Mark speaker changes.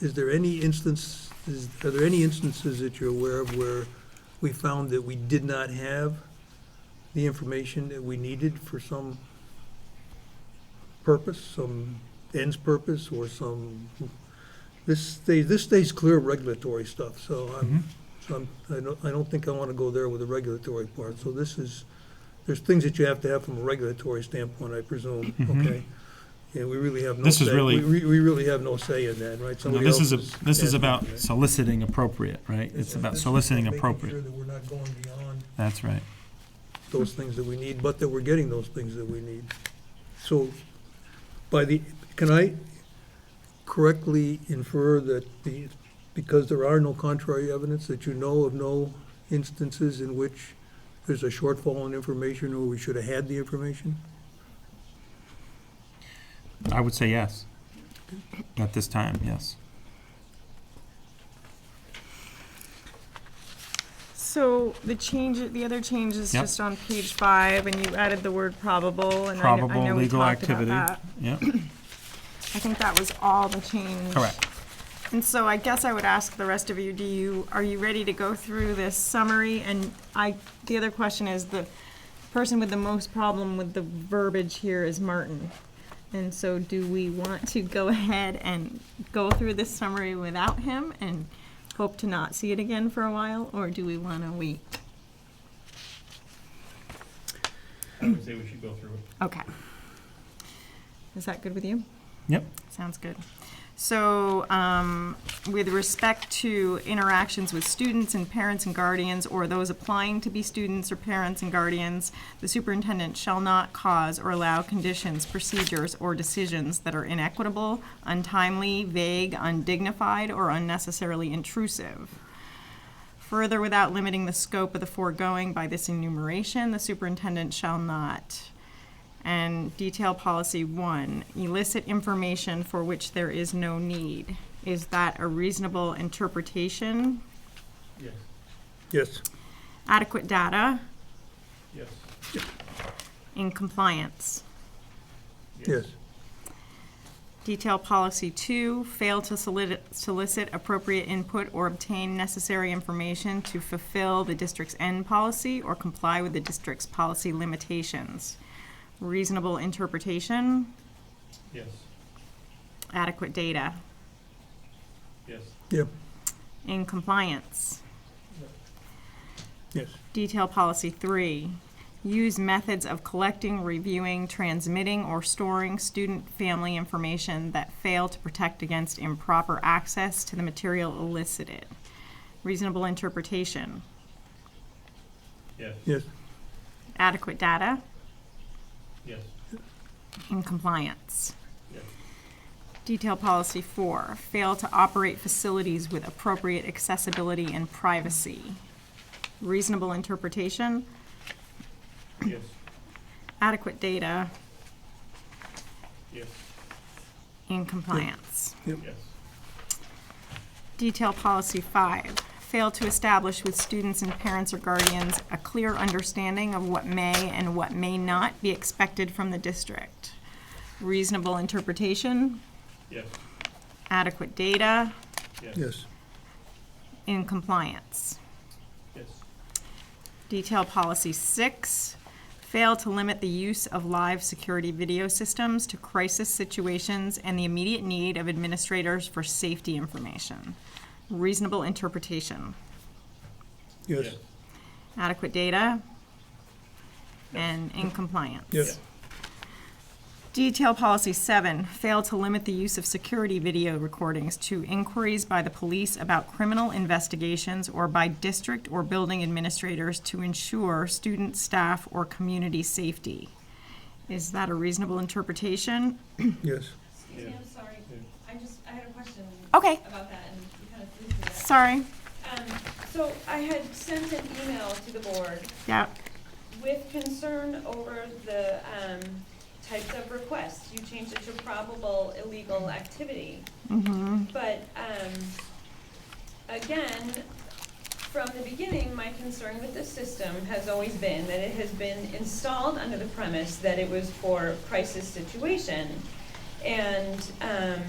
Speaker 1: Is there any instance, is, are there any instances that you're aware of where we found that we did not have the information that we needed for some purpose, some ends purpose, or some, this stays, this stays clear of regulatory stuff, so
Speaker 2: Mm-hmm.
Speaker 1: I'm, so I'm, I don't, I don't think I wanna go there with the regulatory part, so this is, there's things that you have to have from a regulatory standpoint, I presume, okay? Yeah, we really have no say.
Speaker 2: Mm-hmm. This is really-
Speaker 1: We, we really have no say in that, right?
Speaker 2: No,
Speaker 1: Somebody
Speaker 2: this is,
Speaker 1: else
Speaker 2: a- this is
Speaker 1: adding
Speaker 2: about
Speaker 1: to that.
Speaker 2: soliciting appropriate, right? It's about soliciting
Speaker 1: Making
Speaker 2: appropriate.
Speaker 1: sure that we're not going beyond
Speaker 2: That's right.
Speaker 1: those things that we need, but that we're getting those things that we need. So by the, can I correctly infer that the, because there are no contrary evidence, that you know of no instances in which there's a shortfall in information or we should have had the information?
Speaker 2: I would say yes. At this time, yes.
Speaker 3: So the change, the other change is
Speaker 2: Yep.
Speaker 3: just on page five, and you added the word probable, and I know, I
Speaker 2: Probable
Speaker 3: know we
Speaker 2: legal
Speaker 3: talked about
Speaker 2: activity.
Speaker 3: that.
Speaker 2: Yep,
Speaker 3: I think that was all the change.
Speaker 2: correct.
Speaker 3: And so I guess I would ask the rest of you, do you, are you ready to go through this summary? And I, the other question is, the person with the most problem with the verbiage here is Martin. And so do we want to go ahead and go through this summary without him and hope to not see it again for a while, or do we want to wait?
Speaker 4: I would say we should go through it.
Speaker 3: Okay. Is that good with you?
Speaker 2: Yep.
Speaker 3: Sounds good. So, um, with respect to interactions with students and parents and guardians, or those applying to be students or parents and guardians, the superintendent shall not cause or allow conditions, procedures, or decisions that are inequitable, untimely, vague, undignified, or unnecessarily intrusive. Further, without limiting the scope of the foregoing by this enumeration, the superintendent shall not. And detail policy one, elicit information for which there is no need. Is that a reasonable interpretation?
Speaker 4: Yes,
Speaker 1: Yes.
Speaker 3: Adequate data
Speaker 4: yes.
Speaker 3: in compliance.
Speaker 1: Yes.
Speaker 3: Detail policy two, fail to solicit, solicit appropriate input or obtain necessary information to fulfill the district's end policy or comply with the district's policy limitations. Reasonable interpretation,
Speaker 4: Yes,
Speaker 3: adequate data
Speaker 4: yes,
Speaker 1: Yep,
Speaker 3: in compliance.
Speaker 1: yes,
Speaker 3: Detail policy three, use methods of collecting, reviewing, transmitting, or storing student family information that fail to protect against improper access to the material elicited. Reasonable interpretation,
Speaker 4: yes,
Speaker 1: yes,
Speaker 3: adequate data,
Speaker 4: yes,
Speaker 3: in compliance.
Speaker 4: yes,
Speaker 3: Detail policy four, fail to operate facilities with appropriate accessibility and privacy. Reasonable interpretation,
Speaker 4: yes,
Speaker 3: adequate data,
Speaker 4: yes,
Speaker 3: in compliance.
Speaker 4: yes,
Speaker 3: Detail policy five, fail to establish with students and parents or guardians a clear understanding of what may and what may not be expected from the district. Reasonable interpretation,
Speaker 4: yes,
Speaker 3: adequate data,
Speaker 4: yes, yes,
Speaker 1: yes,
Speaker 3: in compliance.
Speaker 4: yes,
Speaker 3: Detail policy six, fail to limit the use of live security video systems to crisis situations and the immediate need of administrators for safety information. Reasonable interpretation.
Speaker 1: yes,
Speaker 3: adequate data, and in compliance.
Speaker 1: yes,
Speaker 3: Detail policy seven, fail to limit the use of security video recordings to inquiries by the police about criminal investigations or by district or building administrators to ensure student, staff, or community safety. Is that a reasonable interpretation?
Speaker 1: yes.
Speaker 5: Excuse me, I'm sorry. I just, I had a question
Speaker 3: Okay,
Speaker 5: about that and you kind of flew through that.
Speaker 3: sorry.
Speaker 5: Um, so I had sent an email to the board
Speaker 3: Yeah,
Speaker 5: with concern over the, um, types of requests. You changed it to probable illegal activity.
Speaker 3: mm-hmm,
Speaker 5: But, um, again, from the beginning, my concern with this system has always been that it has been installed under the premise that it was for crisis situation. And, um,